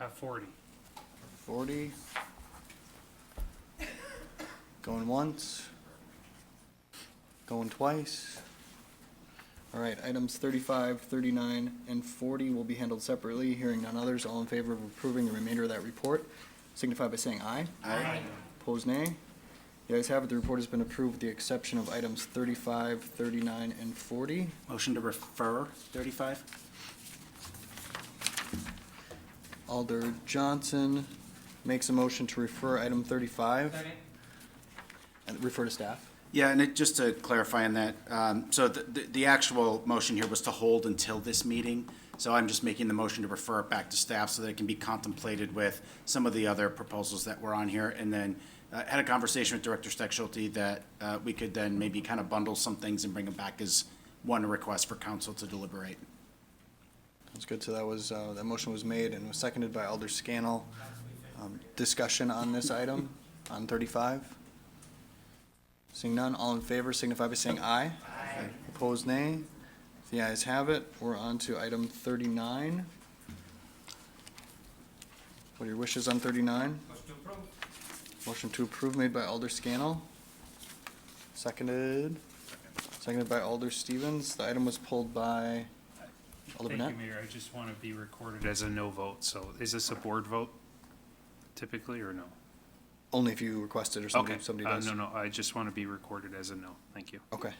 Uh, forty. 40. Going once. Going twice. All right, items 35, 39, and 40 will be handled separately. Hearing none others, all in favor of approving the remainder of that report signify by saying aye. Aye. Opposed, nay. The ayes have it, the report has been approved with the exception of items 35, 39, and 40. Motion to refer 35? Alder Johnson makes a motion to refer item 35. And refer to staff. Yeah, and it, just to clarify on that, um, so the, the- the actual motion here was to hold until this meeting. So I'm just making the motion to refer it back to staff so that it can be contemplated with some of the other proposals that were on here. And then uh, had a conversation with Director Steckschulte that uh, we could then maybe kind of bundle some things and bring them back as one request for council to deliberate. That's good. So that was, uh, that motion was made and was seconded by Alder Scannell. Um, Discussion on this item, on thirty-five? Seeing none, all in favor signify by saying aye. Aye. Opposed, nay. The ayes have it. We're on to item thirty-nine. What are your wishes on thirty-nine? Motion to approve made by Alder Scannell. Seconded, seconded by Alder Stevens. The item was pulled by Alder Thank Burnett. you, Mayor. I just want to be recorded as a no vote, so is this a board vote typically, or no? Only if you request it or somebody, Okay, somebody uh, does. no, no, I just want to be recorded as a no. Thank you. Okay.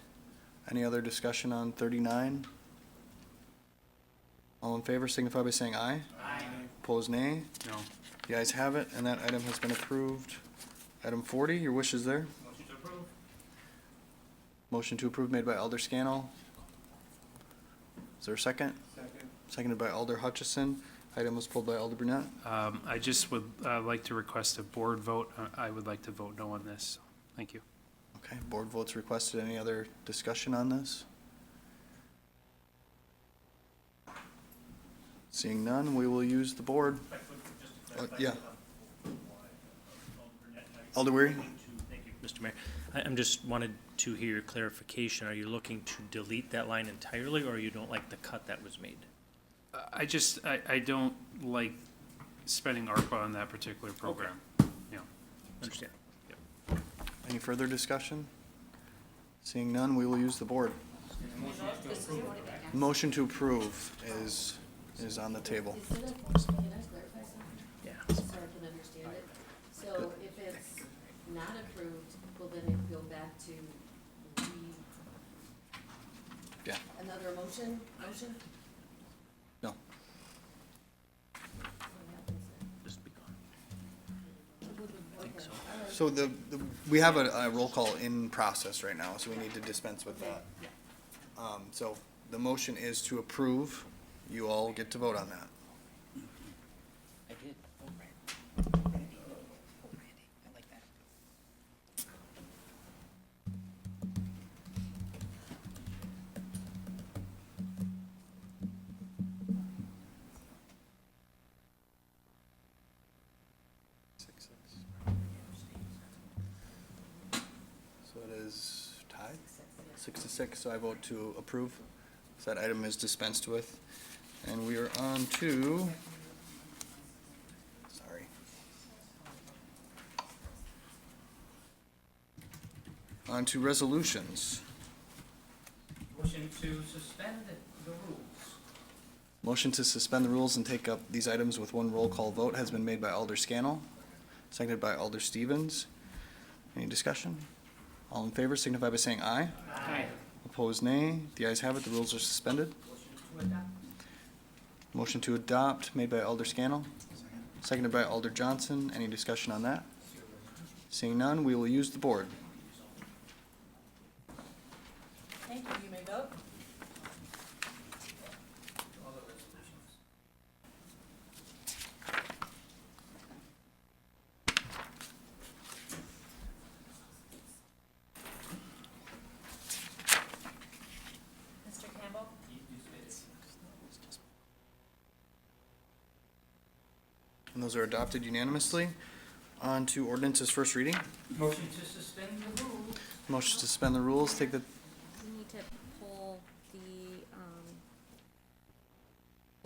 Any other discussion on thirty-nine? All in favor signify by saying aye. Aye. Opposed, nay. No, The ayes have it, and that item has been approved. Item forty, your wish is there? Motion to approve made by Alder Scannell. Is there a second? Second. Seconded by Alder Hutchison. Item was pulled by Alder Brunette. um, I just would, uh, like to request a board vote. Uh, I would like to vote no on this. Thank you. Okay, board votes requested. Any other discussion on this? Seeing none, we will use the board. Uh, Yeah. Alder Weary? Thank you, Mr. Mayor, I, I'm just wanted to hear your clarification. Are you looking to delete that line entirely, or you don't like the cut that was made? Uh, I just, I, I don't like spending ARPA on that particular program. Yeah. Understand. Any further discussion? Seeing none, we will use the board. Motion to approve is, is on the table. Is it a, can I clarify something? Yeah. So I can understand it. So if it's not approved, will then it go back to the, Yeah, another motion, motion? no. What happens then? Just be gone. Okay, so. all right. So the, the- we have a, a roll call in process right now, so we need to dispense with that. Um, so the motion is to approve. You all get to vote on that. I did. Oh, I like that. So it is tied, six to six, so I vote to approve. So that item is dispensed with. And we are on to, sorry. On to resolutions. Motion to suspend the rules. Motion to suspend the rules and take up these items with one roll call vote has been made by Alder Scannell, seconded by Alder Stevens. Any discussion? All in favor signify by saying aye. Aye. Opposed, nay. The ayes have it, the rules are suspended. Motion to adopt. Motion to adopt made by Alder Scannell, seconded by Alder Johnson. Any discussion on that? Seeing none, we will use the board. Thank you, you may vote. All the resolutions. Mr. Campbell? And those are adopted unanimously. On to ordinances first reading. Motion to suspend the rules. Motion to suspend the rules, take the